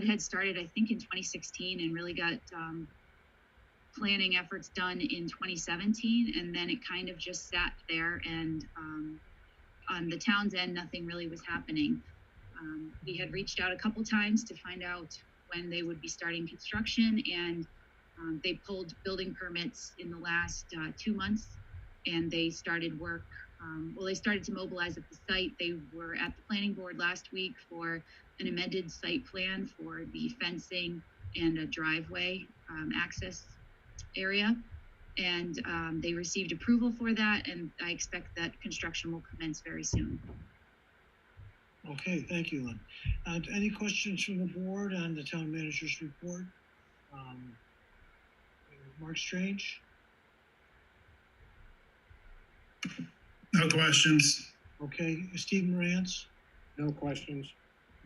that had started, I think, in 2016 and really got um, planning efforts done in 2017. And then it kind of just sat there, and um, on the town's end, nothing really was happening. Um, we had reached out a couple times to find out when they would be starting construction, and um, they pulled building permits in the last uh, two months and they started work. Um, well, they started to mobilize at the site. They were at the planning board last week for an amended site plan for the fencing and a driveway um, access area. And um, they received approval for that, and I expect that construction will commence very soon. Okay, thank you, Lynn. Uh, any questions from the board on the town manager's report? Um, Mark Strange? No questions. Okay, Steve Morantz, No questions.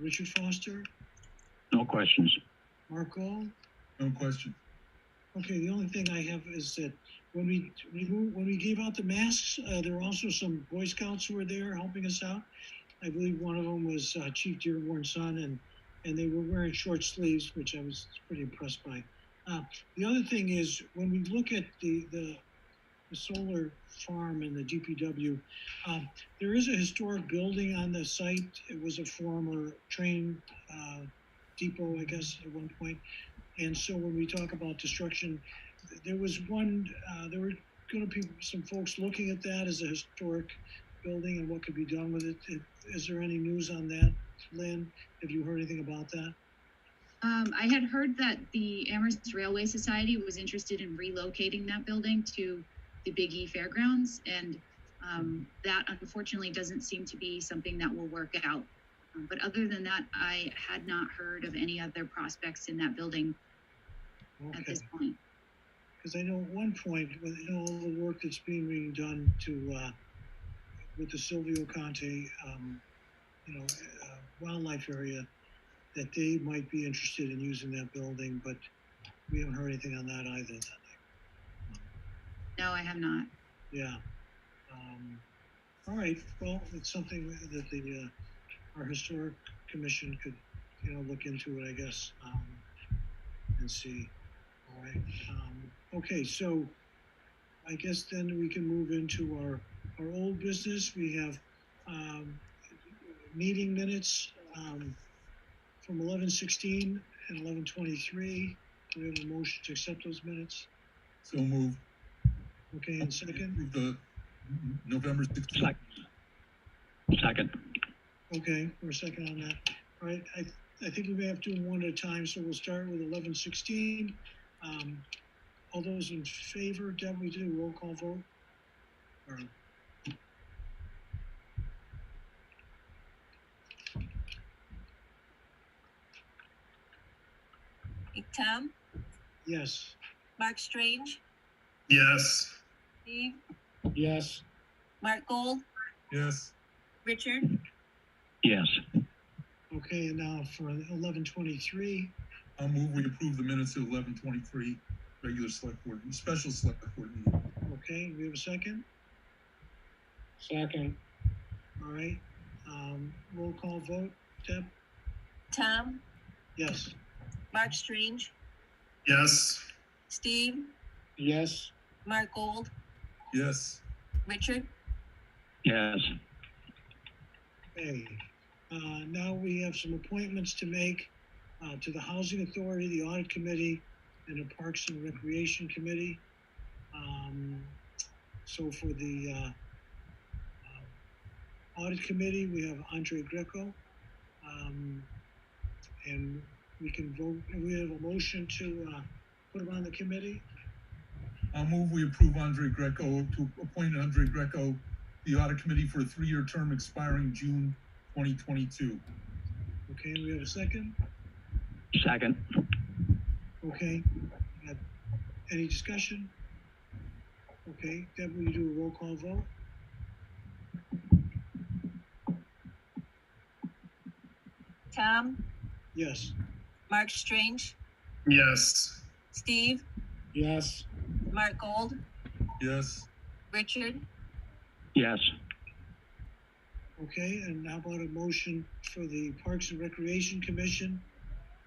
Richard Foster, No questions. Mark Gold? No question. Okay, the only thing I have is that when we, we mo- when we gave out the masks, uh, there were also some Boy Scouts who were there helping us out. I believe one of them was uh, Chief Dearborn's son, and and they were wearing short sleeves, which I was pretty impressed by. Uh, the other thing is when we look at the the, the solar farm and the DPW, um, there is a historic building on the site. It was a former train uh, depot, I guess, at one point. And so when we talk about destruction, th- there was one, uh, there were gonna be some folks looking at that as a historic building and what could be done with it. Is- Is there any news on that, Lynn? Have you heard anything about that? Um, I had heard that the Amherst Railway Society was interested in relocating that building to the Big E Fairgrounds, and um, that unfortunately doesn't seem to be something that will work out. Um, But other than that, I had not heard of any other prospects in that building at Okay, this point. because I know at one point, with you know, all the work that's being being done to, uh, with the Silvio Conte, um, you know, uh, wildlife area, that they might be interested in using that building, but we haven't heard anything on that either. No, I have not. Yeah. Um, all right, well, it's something that the, uh, our historic commission could, you know, look into it, I guess, um, and see. All right, um, okay, so I guess then we can move into our, our old business. We have, um, meeting minutes, um, from eleven sixteen and eleven twenty-three. We have a motion to accept those minutes. So move. Okay, and second? Move The November sixteenth. Second. Second. Okay, we're second on that. All right, I, I think we may have to do them one at a time, so we'll start with eleven sixteen. Um, all those in favor, Deb, we do roll call vote? Or- Big Tom, Yes, Mark Strange, Yes. Steve, Yes. Mark Gold, Yes. Richard, Yes. okay, and now for eleven twenty-three, I'll move, we approve the minutes of eleven twenty-three, regular select board, special select board meeting. okay, we have a second? Second. All right, um, roll call vote, Deb? Tom, Yes, Mark Strange, Yes. Steve, Yes. Mark Gold, Yes. Richard, Yes. okay. Uh, now we have some appointments to make, uh, to the Housing Authority, the Audit Committee, and the Parks and Recreation Committee. Um, so for the, uh, uh, Audit Committee, we have Andre Greco. Um, and we can vote, we have a motion to, uh, put him on the committee. I'll move, we approve Andre Greco, to appoint Andre Greco, the audit committee for a three-year term expiring June twenty twenty-two. Okay, we have a second? Second. Okay. Uh, Any discussion? Okay, Deb, will you do a roll call vote? Tom, Yes. Mark Strange, Yes. Steve, Yes. Mark Gold, Yes. Richard, Yes. Okay, and how about a motion for the Parks and Recreation Commission?